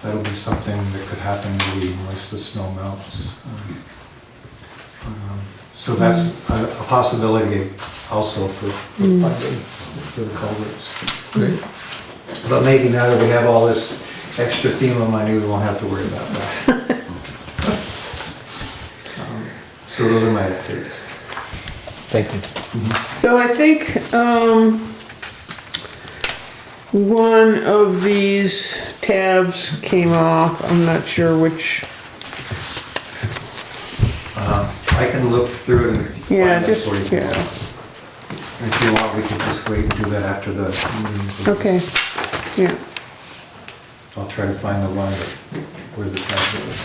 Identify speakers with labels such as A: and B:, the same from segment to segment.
A: that'll be something that could happen maybe once the snow melts. Um, um, So that's a a possibility also for for
B: Mm.
A: funding, for the culverts.
C: Great.
A: But maybe now that we have all this extra FEMA money, we won't have to worry about that. Um, So those are my updates.
C: Thank you.
B: So I think, um, one of these tabs came off, I'm not sure which.
A: Um, I can look through and. find
B: Yeah,
A: that
B: just-
A: for you.
B: yeah.
A: If you want, we can just wait and do that after the meeting's over.
B: Okay, yeah,
A: I'll try to find the one that- where the tablet is.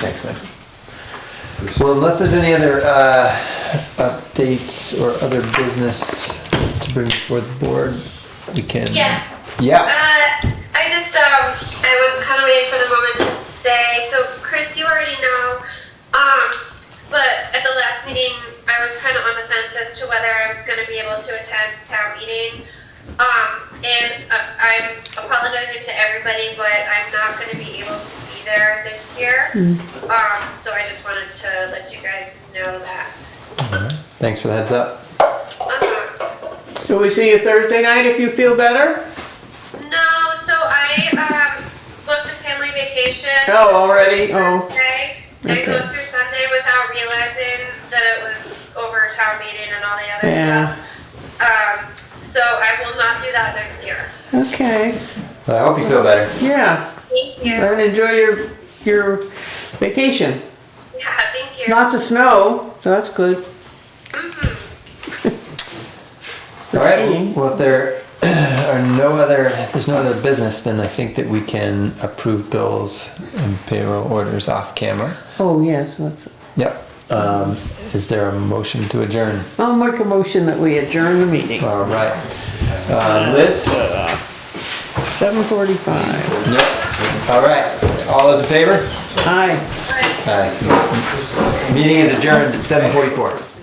C: Thanks, man.
A: first.
C: Well, unless there's any other uh, updates or other business to bring before the board, we can.
D: Yeah.
C: Yeah.
D: Uh, I just um, I was kind of waiting for the moment to say. So, Chris, you already know, um, but at the last meeting, I was kind of on the fence as to whether I was going to be able to attend town meeting. Um, and uh, I'm apologizing to everybody, but I'm not going to be able to be there this year. Um, so I just wanted to let you guys know that.
C: Thanks for the heads up.
D: Um,
B: so we see you Thursday night if you feel better?
D: No, so I um, booked a family vacation.
B: Oh, already? Oh.
D: Sunday, And it
B: Okay.
D: goes through Sunday without realizing that it was over town meeting and all the other
B: Yeah.
D: stuff. Um, so I will not do that next year.
B: Okay,
C: Well, I hope you feel better.
B: yeah,
D: Thank you. Yeah,
B: and enjoy your, your vacation.
D: thank you.
B: Lots of snow, so that's good.
D: Mhm.
C: All right.
B: Skiing.
C: Well, if there are no other, if there's no other business, then I think that we can approve bills and payroll orders off camera.
B: Oh, yes, that's,
C: Yep. Um, is there a motion to adjourn?
B: I'll make a motion that we adjourn the meeting,
C: All right. Uh, Liz.
B: seven forty-five.
C: Yep. All right. All those in favor?
B: Aye.
D: Bye.
C: Aye. Meeting is adjourned at 7:44.